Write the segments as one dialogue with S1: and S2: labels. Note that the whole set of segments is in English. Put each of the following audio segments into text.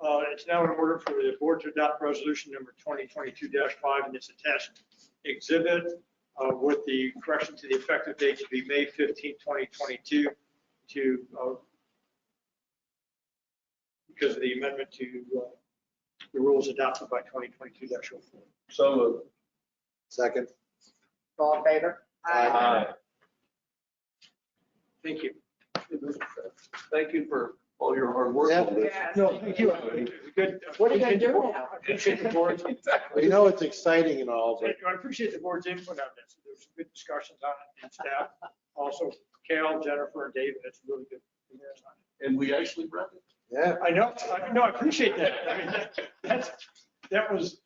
S1: Uh, It's now in order for the board to adopt resolution number 2022-5 and its attached exhibit uh, with the correction to the effective date to be May 15, 2022 to, uh, because of the amendment to uh, the rules adopted by 2022-04.
S2: So moved.
S3: Second.
S4: All in favor?
S1: Thank you.
S2: Thank you for all your hard work.
S3: Yeah.
S4: Yes.
S1: No, thank you. Good.
S4: What are you gonna do now?
S1: I appreciate the board's
S3: We know it's exciting and all, but
S1: I appreciate the board's input on this. There was some good discussions on it and staff. Also, Cal, Jennifer, and David, it's really good.
S2: And we actually read it.
S3: yeah,
S1: I know, I know, I appreciate that. I mean, that- that's, that was,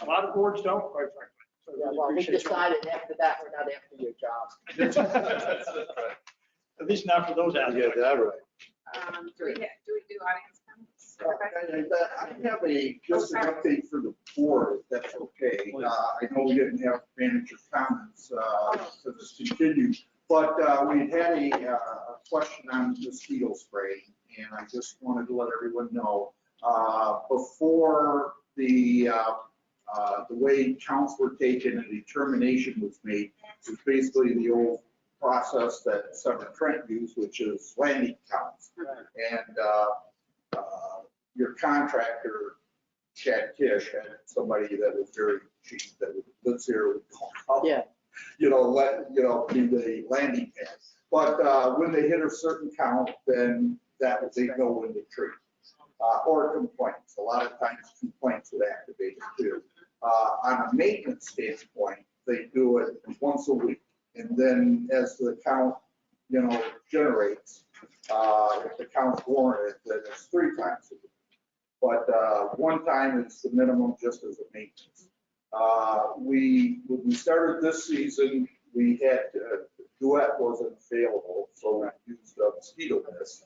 S1: a lot of boards don't, quite frankly. So I
S4: Yeah,
S1: really
S4: Well, we
S1: appreciate y'all.
S4: decided after that, we're not after your job.
S1: At least not for those out
S3: you
S1: there.
S3: got that right.
S5: Um, do we, do we do audience comments? Okay.
S6: I have a, just an update for the board, if that's okay. Uh, I know we didn't have manager comments, uh, so this continues. But, uh, we had a, uh, a question on mosquito spray, and I just wanted to let everyone know, uh, before the, uh, uh, the way counts were taken and determination was made, was basically the old process that Senator Trent used, which is landing counts. And, uh, uh, your contractor, Chad Kish, had somebody that was very cheap, that lives here. would call up,
S4: Yeah.
S6: You know, let, you know, do the landing pad. But uh, when they hit a certain count, then that was, they know when to treat. Uh, Or complaints, a lot of times complaints would activate it too. Uh, On a maintenance standpoint, they do it once a week. And then as the count, you know, generates, uh, if the count's warranted, then it's three times a week. But uh, one time is the minimum just as a maintenance. Uh, We, when we started this season, we had, uh, duet wasn't available, so we used a mosquito mist.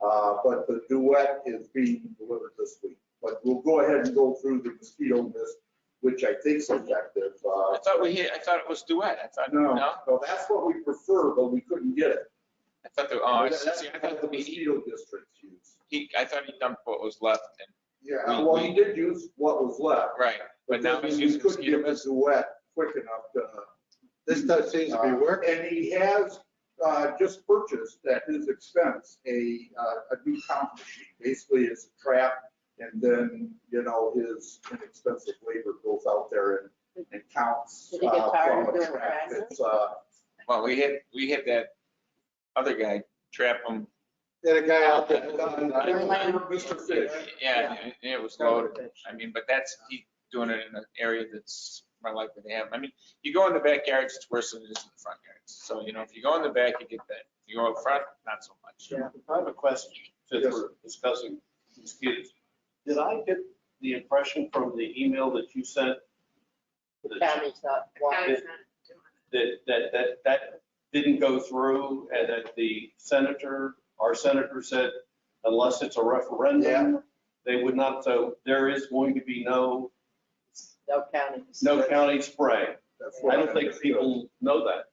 S6: Uh, But the duet is being delivered this week. But we'll go ahead and go through the mosquito mist, which I think is effective. Uh,
S7: I thought we, I thought it was duet. I thought,
S6: No,
S7: no,
S6: no, that's what we prefer, but we couldn't get it.
S7: I thought, the- oh, I
S6: That- that's
S7: see, I thought
S6: what The
S7: he,
S6: mosquito districts use.
S7: he, I thought he dumped what was left and,
S6: Yeah,
S7: We-
S6: well,
S7: we-
S6: he did use what was left.
S7: right, but now
S6: then
S7: he's
S6: we
S7: using
S6: couldn't
S7: mosquito
S6: get him
S7: mist.
S6: a duet quick enough to. uh,
S3: This stuff seems to be working.
S6: And he has uh, just purchased at his expense a, uh, a new count machine. Basically, it's a trap and then, you know, his inexpensive labor goes out there and, and counts.
S4: Did he get
S6: uh,
S4: tired
S6: from
S4: of
S6: a
S4: doing
S6: trap.
S4: it?
S6: It's, uh,
S7: Well, we had, we had that other guy trap him.
S3: Get a guy out there.
S7: I
S4: don't know.
S6: Mr. Fish.
S7: Yeah, and it was loaded. I mean, but that's, he doing it in an area that's more likely to have, I mean, you go in the backyards, it's worse than it is in the front yards. So, you know, if you go in the back, you get that. You go up front, not so much.
S2: I have a question, since
S6: Yes,
S2: we're discussing mosquitoes. Did I get the impression from the email that you sent that,
S4: County's not
S5: Guys,
S4: wanting.
S5: not doing it.
S2: that, that, that didn't go through and that the senator, our senator said unless it's a
S6: Yeah.
S2: referendum, they would not, so there is going to be no,
S4: No counties.
S2: no county spray.
S6: That's
S2: I
S6: what
S2: don't think
S6: understood.
S2: people know that.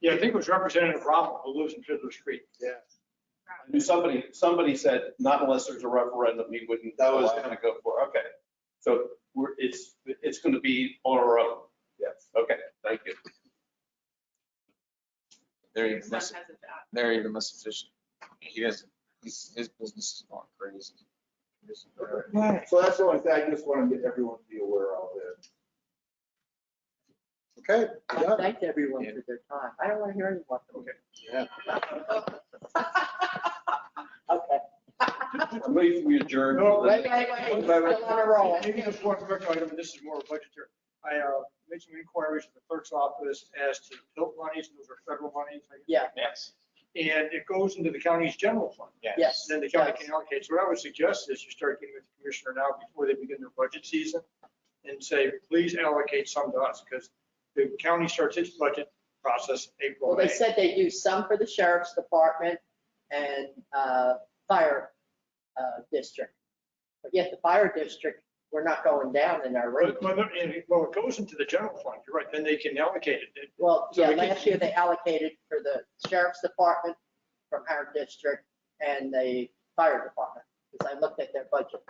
S1: Yeah, I think it was Representative Rommel who lives in Fiddler Street.
S3: Yeah.
S2: I knew somebody, somebody said, not unless there's a referendum, he wouldn't, that was gonna go for, okay. So we're, it's, it's gonna be on our own. Yes. Okay, thank you.
S7: They're even
S5: Son
S7: less,
S5: has a job.
S7: they're even less efficient. He doesn't, his, his business is going crazy. He doesn't-
S6: So that's the only thing, I just wanted to get everyone to be aware of it.
S3: Okay,
S4: I
S3: done.
S4: thanked everyone for their time. I don't want to hear anyone.
S3: Yeah.
S4: Okay.
S2: I'm waiting for you to adjourn.
S1: No,
S4: Wait, wait, wait, still on a roll.
S1: Maybe just one quick item, this is more budgetary. I uh, made some inquiries at the clerk's office as to built monies, those are federal monies. I guess.
S4: Yeah.
S7: Yes.
S1: And it goes into the county's general fund.
S4: Yes.
S1: Then the county can allocate. So what I would suggest is you start getting with the commissioner now before they begin their budget season and say, please allocate some to us because the county starts its budget process April,
S4: Well, they
S1: May.
S4: said they used some for the sheriff's department and uh, fire uh, district. But yet the fire district, we're not going down in our rate.
S1: But- but- and it- Well, it goes into the general fund, you're right, then they can allocate it. It-
S4: Well,
S1: So
S4: yeah,
S1: we can-
S4: last year they allocated for the sheriff's department from our district and the fire department, because I looked at their budget.